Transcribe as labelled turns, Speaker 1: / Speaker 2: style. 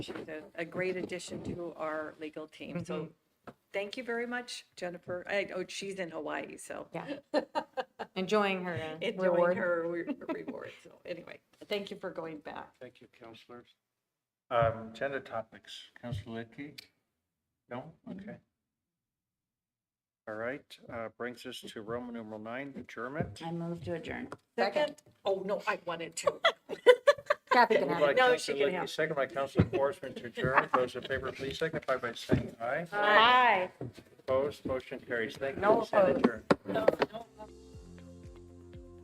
Speaker 1: She's a, a great addition to our legal team. So thank you very much, Jennifer. I, oh, she's in Hawaii, so
Speaker 2: Yeah. Enjoying her uh,
Speaker 1: enjoying
Speaker 2: reward.
Speaker 1: her re- reward. So anyway, thank you for going back.
Speaker 3: Thank you, counselors. Um, Agenda topics, Counselor Lidkey? No?
Speaker 2: Mm-hmm.
Speaker 3: Okay. All right, uh, brings us to Roman numeral nine, adjournment.
Speaker 4: I move to adjourn.
Speaker 1: Second? Oh, no, I wanted to.
Speaker 2: Kathy can
Speaker 3: Moved
Speaker 2: have
Speaker 3: by
Speaker 2: it.
Speaker 1: No, she
Speaker 3: Counselor
Speaker 1: can
Speaker 3: Lidkey,
Speaker 1: have it.
Speaker 3: Second by Counselor Forsman to adjourn. Those in favor, please signify by saying aye.
Speaker 2: Hi.
Speaker 3: Opposed, motion carries. Thank you.
Speaker 2: No
Speaker 3: Stand
Speaker 2: opposed.
Speaker 3: adjourned.
Speaker 1: No, no.